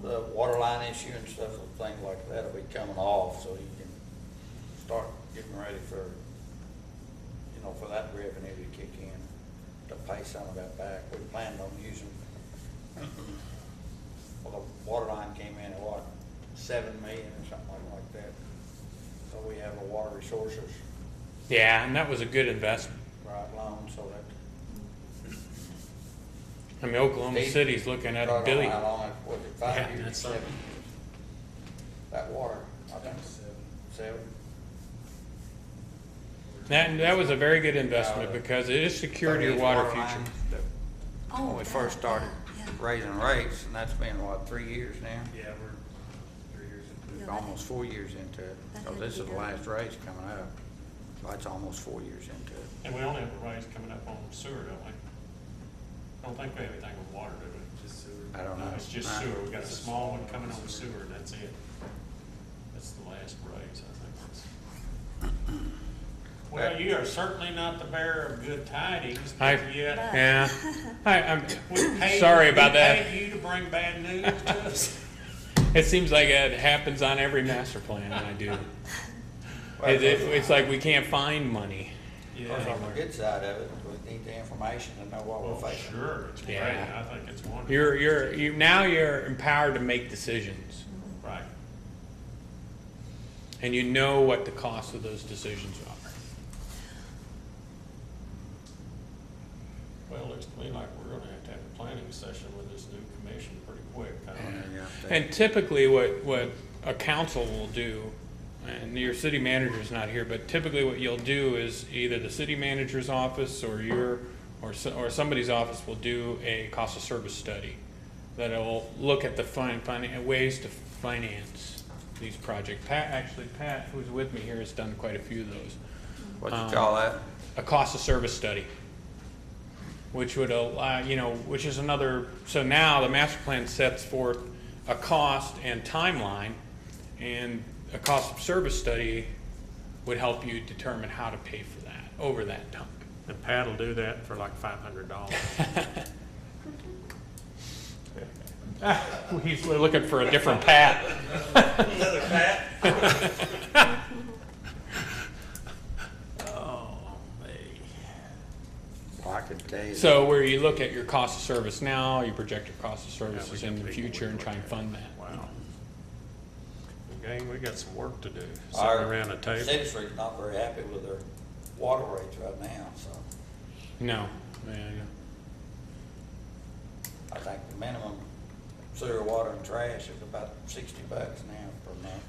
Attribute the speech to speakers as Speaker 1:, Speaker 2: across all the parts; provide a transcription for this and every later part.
Speaker 1: the water line issue and stuff, and things like that'll be coming off, so you can start getting ready for, you know, for that revenue to kick in, to pay some of that back. We planned on using, well, the water line came in at what, seven million or something like that. So we have a water resources,
Speaker 2: Yeah, and that was a good investment.
Speaker 1: right, loan, so that
Speaker 2: I mean, Oklahoma
Speaker 1: Eight.
Speaker 2: City's looking at
Speaker 1: Right
Speaker 2: a
Speaker 1: on
Speaker 2: billion.
Speaker 1: How long, it- was it five
Speaker 2: Yeah,
Speaker 1: years,
Speaker 2: that's
Speaker 1: seven years? That water, I think, seven,
Speaker 2: That, that was a very good investment because it is secured your
Speaker 1: These
Speaker 2: water
Speaker 1: lines
Speaker 2: future.
Speaker 1: that-
Speaker 3: Oh,
Speaker 1: When we
Speaker 3: that,
Speaker 1: first started
Speaker 3: yeah.
Speaker 1: raising rates, and that's been, what, three years now?
Speaker 4: Yeah, we're three years into
Speaker 3: Yeah,
Speaker 4: it.
Speaker 3: that-
Speaker 1: Almost four years into it,
Speaker 3: That
Speaker 1: so
Speaker 3: had to
Speaker 1: this
Speaker 3: be
Speaker 1: is the
Speaker 3: done.
Speaker 1: last raise coming up, so that's almost four years into it.
Speaker 5: And we only have a raise coming up on sewer, don't we? Don't think we have anything with water, do we?
Speaker 4: Just so we're-
Speaker 1: I don't know.
Speaker 5: No, it's just
Speaker 1: Uh,
Speaker 5: sewer. We got a small one coming on sewer, and that's it. That's the last raise, I think. that's- Well, you are certainly not the bearer of good tidings,
Speaker 2: I,
Speaker 5: but yet.
Speaker 2: yeah, I, I'm
Speaker 5: we paid-
Speaker 2: sorry about
Speaker 5: we
Speaker 2: that.
Speaker 5: paid you to bring bad news to us.
Speaker 2: It seems like it happens on every master plan that I do.
Speaker 1: Well,
Speaker 2: It, it- it's like we can't find money.
Speaker 1: Of course, on the
Speaker 5: Yeah.
Speaker 1: good side of it, we need the information to know what
Speaker 5: Well,
Speaker 1: we're facing.
Speaker 5: sure, it's great.
Speaker 2: Yeah.
Speaker 5: I think it's wonderful.
Speaker 2: You're, you're, you, now you're empowered to make decisions
Speaker 5: Right.
Speaker 2: and you know what the cost of those decisions are.
Speaker 5: Well, it looks to me like we're gonna have to have a planning session with this new commission pretty quick. I don't
Speaker 2: Oh,
Speaker 5: know.
Speaker 1: Yeah, I think-
Speaker 2: And typically what, what a council will do, and your city manager's not here, but typically what you'll do is either the city manager's office or your, or, so- or somebody's office will do a cost of service study that'll look at the fin, fin, ways to finance these projects. Pat, actually Pat, who's with me here, has done quite a few of those
Speaker 1: What you
Speaker 2: um,
Speaker 1: call that?
Speaker 2: a cost of service study, which would allow, you know, which is another, so now the master plan sets forth a cost and timeline, and a cost of service study would help you determine how to pay for that over that time.
Speaker 5: And Pat will do that for like five hundred dollars.
Speaker 2: He's looking for a different path.
Speaker 5: Oh, me.
Speaker 1: Well, I could tell you.
Speaker 2: So where you look at your cost of service now, you project your cost of services
Speaker 5: got
Speaker 2: in the
Speaker 5: people we
Speaker 2: future and try and fund that.
Speaker 5: Wow. Gang, we got some work to do, sitting
Speaker 1: Our
Speaker 5: around the table.
Speaker 1: Citizenry's not very happy with their water rates right now, so.
Speaker 2: No, yeah, yeah.
Speaker 1: I think the minimum sewer, water, and trash is about sixty bucks now per month.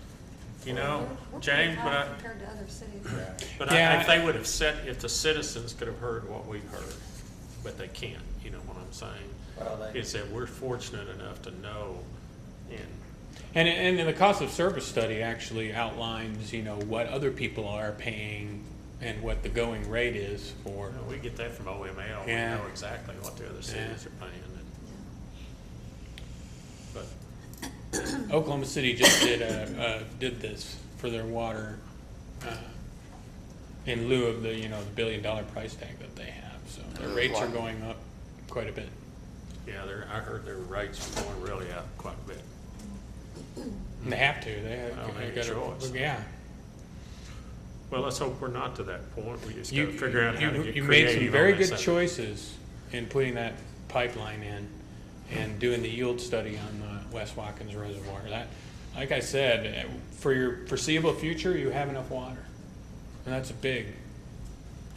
Speaker 5: You
Speaker 3: We're-
Speaker 5: know,
Speaker 3: we're pretty
Speaker 5: James, but
Speaker 3: high
Speaker 5: I,
Speaker 3: Compared to other cities.
Speaker 5: but I
Speaker 2: Yeah.
Speaker 5: think they would have said, if the citizens could have heard what we've heard, but they can't, you know what I'm saying?
Speaker 1: Well, they-
Speaker 5: Is that we're fortunate enough to know and
Speaker 2: And, and then the cost of service study actually outlines, you know, what other people are paying and what the going rate is for.
Speaker 5: Well, We get that from OML, we
Speaker 2: Yeah.
Speaker 5: know exactly what the other cities are paying, and, but,
Speaker 2: Oklahoma City just did a, uh, did this for their water, uh, in lieu of the, you know, the billion dollar price tag that they have, so their rates are going up quite a bit.
Speaker 5: yeah, they're, I heard their rates were going really up quite a bit.
Speaker 2: And they have to, they
Speaker 5: I don't
Speaker 2: have, they
Speaker 5: think it's
Speaker 2: gotta,
Speaker 5: yours.
Speaker 2: yeah.
Speaker 5: Well, let's hope we're not to that point, we just
Speaker 2: You,
Speaker 5: gotta figure out how to
Speaker 2: you,
Speaker 5: get
Speaker 2: you made some
Speaker 5: creative on
Speaker 2: very
Speaker 5: this
Speaker 2: good
Speaker 5: thing.
Speaker 2: choices in putting that pipeline in and doing the yield study on the West Watkins Reservoir. That, like I said, eh, for your foreseeable future, you have enough water. And that's big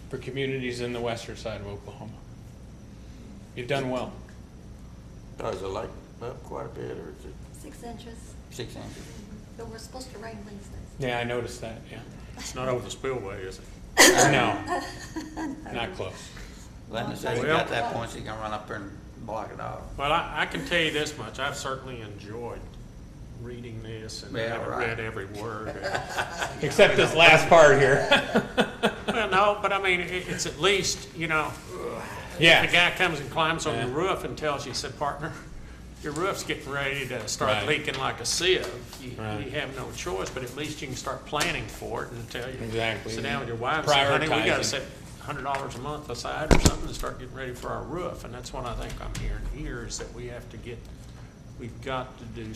Speaker 2: for communities in the western side of Oklahoma. You've done well.
Speaker 1: Does Oh, it like up quite a bit, or is it
Speaker 3: Six inches,
Speaker 1: six inches?
Speaker 3: but we're supposed to rain Wednesdays.
Speaker 2: Yeah, I noticed that, yeah.
Speaker 5: It's not over the spillway, is it?
Speaker 2: No, not close.
Speaker 1: Then they say you
Speaker 5: Well-
Speaker 1: got that point, you can run up there and block it off.
Speaker 5: Well, I, I can tell you this much, I've certainly enjoyed reading this, and I
Speaker 1: Yeah,
Speaker 5: haven't
Speaker 1: right.
Speaker 5: read every word.
Speaker 2: Except this last part here.
Speaker 5: Well, no, but I mean, it, it's at least, you know, The
Speaker 2: Yeah,
Speaker 5: guy comes and climbs on
Speaker 2: Yeah.
Speaker 5: your roof and tells you, said, partner, your roof's getting ready to start
Speaker 2: Right.
Speaker 5: leaking like a sieve. You,
Speaker 2: Right.
Speaker 5: you have no choice, but at least you can start planning for it and tell you.
Speaker 2: Exactly.
Speaker 5: Sit down with your wife and say, honey, we gotta
Speaker 2: Prioritizing.
Speaker 5: set hundred dollars a month aside or something to start getting ready for our roof. And that's what I think I'm hearing here is that we have to get, we've got to do